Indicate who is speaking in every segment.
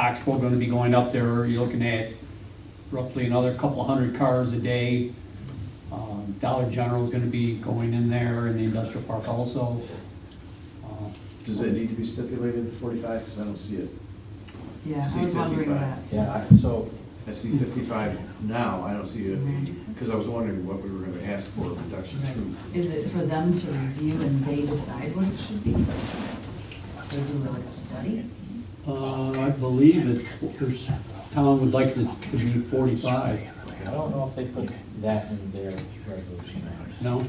Speaker 1: Knoxville gonna be going up there, you're looking at roughly another couple hundred cars a day. Um, Dollar General's gonna be going in there in the industrial park also. Uh,
Speaker 2: Does it need to be stipulated, the forty-five, because I don't see it.
Speaker 3: Yeah,
Speaker 2: See,
Speaker 3: I was wondering
Speaker 2: 55.
Speaker 3: that.
Speaker 4: Yeah, I- so,
Speaker 2: I see fifty-five now, I don't see it,
Speaker 3: Mm-hmm.
Speaker 2: because I was wondering what we were gonna ask for a reduction to.
Speaker 3: Is it for them to review and they decide what it should be? They do like a study?
Speaker 1: Uh, I believe that there's, town would like it to be forty-five,
Speaker 4: I don't know if they put that in their resolution.
Speaker 1: no?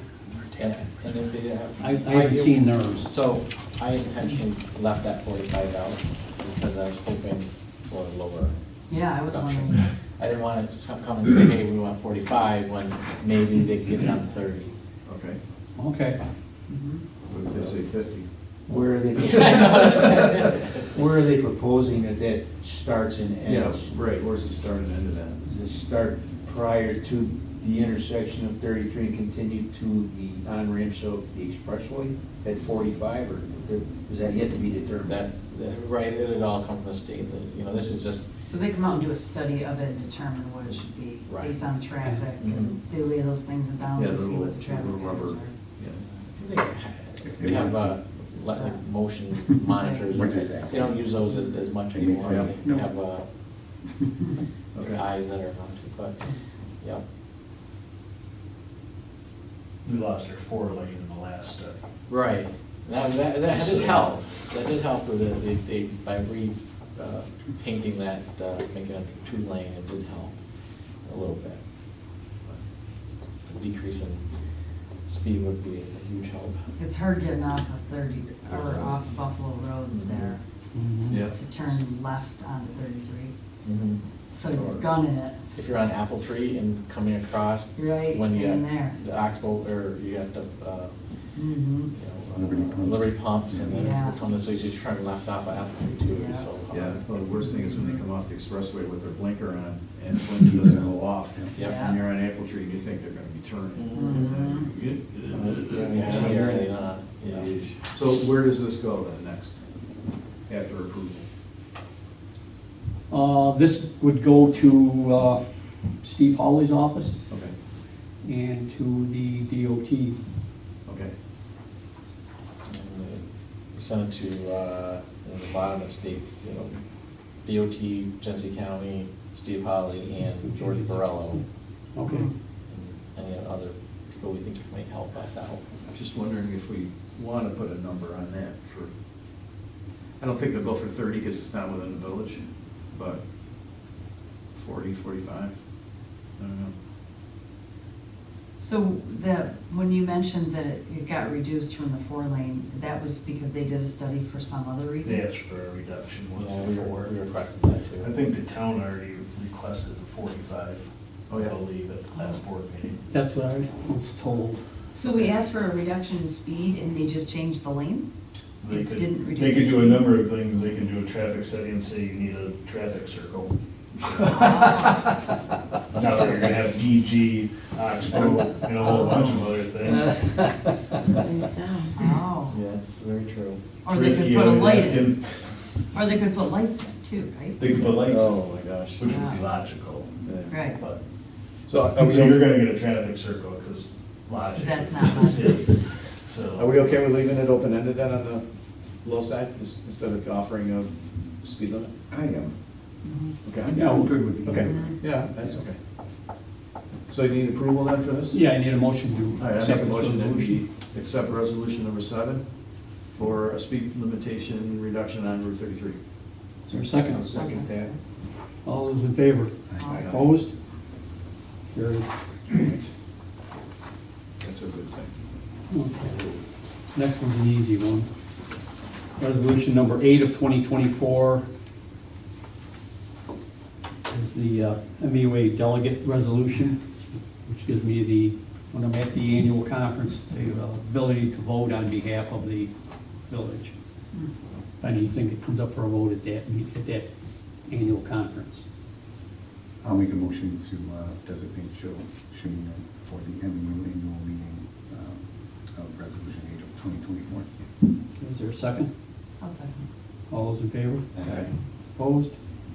Speaker 4: And and if they have.
Speaker 1: I, I haven't seen theirs.
Speaker 4: So I intentionally left that forty-five out because I was hoping for a lower
Speaker 3: Yeah, I was
Speaker 4: reduction.
Speaker 3: wondering.
Speaker 4: I didn't want to come and say, hey, we want forty-five when maybe they get it on thirty.
Speaker 2: Okay,
Speaker 1: Okay,
Speaker 2: what if they say fifty?
Speaker 5: Where are they, where are they proposing that that starts and
Speaker 2: Yeah,
Speaker 5: ends?
Speaker 2: right, where's the start and end of that?
Speaker 5: Does it start prior to the intersection of 33 and continue to the on-ramps of the expressway at 45? Or there- is that yet to be
Speaker 4: That,
Speaker 5: determined?
Speaker 4: that- right, it'd all come from the state, that, you know, this is just,
Speaker 3: So they come out and do a study of it and determine what it should be
Speaker 4: Right.
Speaker 3: based on traffic.
Speaker 4: Mhm.
Speaker 3: They lay those things down
Speaker 2: Mm-hmm. Yeah,
Speaker 3: and
Speaker 2: the
Speaker 3: see
Speaker 2: little-
Speaker 3: what the traffic
Speaker 2: little
Speaker 3: patterns
Speaker 2: rubber,
Speaker 3: are.
Speaker 2: yeah.
Speaker 4: they have a, like, motion monitors.
Speaker 6: Which is that?
Speaker 4: They don't use those as as much
Speaker 6: They may
Speaker 4: anymore.
Speaker 6: sell.
Speaker 4: They have, uh,
Speaker 2: Okay.
Speaker 4: eyes that are mounted, but, yeah.
Speaker 7: We lost our four lane in the last study.
Speaker 4: Right, that, that, that did help, that did help with it, they, they, by re, uh, painting that, uh, making it two lane, it did help a little bit. A decrease in speed would be a huge help.
Speaker 3: It's hard getting off of thirty, or off Buffalo Road there
Speaker 2: Mm-hmm. Yeah.
Speaker 3: to turn left onto thirty-three.
Speaker 4: Mhm.
Speaker 3: So you're gunning it.
Speaker 4: If you're on Apple Tree and coming across.
Speaker 3: Right,
Speaker 4: when you
Speaker 3: same
Speaker 4: got
Speaker 3: there.
Speaker 4: The Oxbow, or you got the, uh,
Speaker 3: Mm-hmm.
Speaker 4: you know, uh,
Speaker 6: Liberty pumps.
Speaker 4: Liberty pumps, and
Speaker 3: Yeah.
Speaker 4: then come this way, so you turn left off of Apple Tree too, it's
Speaker 3: Yeah.
Speaker 4: so. uh, hard.
Speaker 2: Yeah, well, the worst thing is when they come off the expressway with their blinker on, and the blinker doesn't go off.
Speaker 4: Yep.
Speaker 2: And you're on Apple Tree, and you think they're gonna be
Speaker 3: Mm-hmm.
Speaker 2: turning.
Speaker 4: Yeah, you're already not, you know.
Speaker 2: So where does this go then, next, after approval?
Speaker 1: uh, this would go to, uh, Steve Hawley's office
Speaker 2: Okay,
Speaker 1: and to the DOT.
Speaker 2: okay.
Speaker 4: We sent it to, uh, you know, the bottom of states, you know, DOT, Genesee County, Steve Holly, and George Borello,
Speaker 1: Okay,
Speaker 4: and any other people we think might help us out.
Speaker 2: I'm just wondering if we want to put a number on that for, I don't think they'll go for thirty because it's not within the village, but 40, 45. I don't know.
Speaker 3: So that, when you mentioned that it it got reduced from the four lane, that was because they did a study for some other reason?
Speaker 7: They asked for a reduction once
Speaker 4: Yeah, we
Speaker 7: before.
Speaker 4: were, we requested that too.
Speaker 7: I think the town already requested the forty-five,
Speaker 2: Oh,
Speaker 7: I
Speaker 2: yeah.
Speaker 7: believe, at the last board meeting.
Speaker 1: that's what I was told.
Speaker 3: So we asked for a reduction in speed and they just changed the lanes?
Speaker 7: They
Speaker 3: It
Speaker 7: could,
Speaker 3: didn't reduce
Speaker 7: they could
Speaker 3: the
Speaker 7: do a
Speaker 3: speed.
Speaker 7: number of things. They can do a traffic study and say you need a traffic circle.
Speaker 3: Oh,
Speaker 7: Now that you're gonna have DG, Oxbow, and a whole bunch of other things.
Speaker 3: Oh.
Speaker 4: Yeah, it's very true.
Speaker 3: Or they could
Speaker 7: Frisky
Speaker 3: put a
Speaker 7: always
Speaker 3: light in,
Speaker 7: asking-
Speaker 3: or they could put lights in too, right?
Speaker 7: They could put lights,
Speaker 4: Oh.
Speaker 7: in,
Speaker 2: my gosh.
Speaker 7: which would be
Speaker 3: Yeah.
Speaker 7: logical,
Speaker 2: Yeah.
Speaker 3: Ah. Right,
Speaker 7: but.
Speaker 2: So
Speaker 4: Uh,
Speaker 7: So
Speaker 2: are we,
Speaker 7: you're
Speaker 2: okay-
Speaker 7: gonna get a traffic circle, because logic
Speaker 3: That's
Speaker 7: is
Speaker 3: not
Speaker 7: the city, so.
Speaker 2: are we okay with leaving it open-ended then on the low side, just instead of offering a speed limit?
Speaker 6: I am.
Speaker 1: Mm-hmm.
Speaker 2: Okay.
Speaker 6: Yeah, I'm good with it.
Speaker 2: Okay, yeah, that's okay. So you need approval then for this?
Speaker 1: Yeah, I need a motion
Speaker 2: All
Speaker 1: to
Speaker 2: right, I make
Speaker 1: accept
Speaker 2: a
Speaker 1: this
Speaker 2: motion that we
Speaker 1: resolution.
Speaker 2: accept resolution number seven for a speed limitation reduction on Route thirty-three.
Speaker 1: Is there a second?
Speaker 5: I'll second that.
Speaker 1: All those in favor?
Speaker 3: Aye.
Speaker 1: Opposed? Carried.
Speaker 2: That's a good thing.
Speaker 1: Okay. Next one's an easy one. Resolution number eight of 2024 is the uh, MUA delegate resolution, which gives me the, when I'm at the annual conference, the uh, ability to vote on behalf of the village. Anything that comes up for a vote at that, meet- at that annual conference.
Speaker 6: I'll make a motion to uh, designate Joe Shimino for the MU annual meeting um, of Resolution 8 of 2024.
Speaker 1: Is there a second?
Speaker 3: I'll second.
Speaker 1: All those in favor?
Speaker 2: Aye.
Speaker 1: Opposed?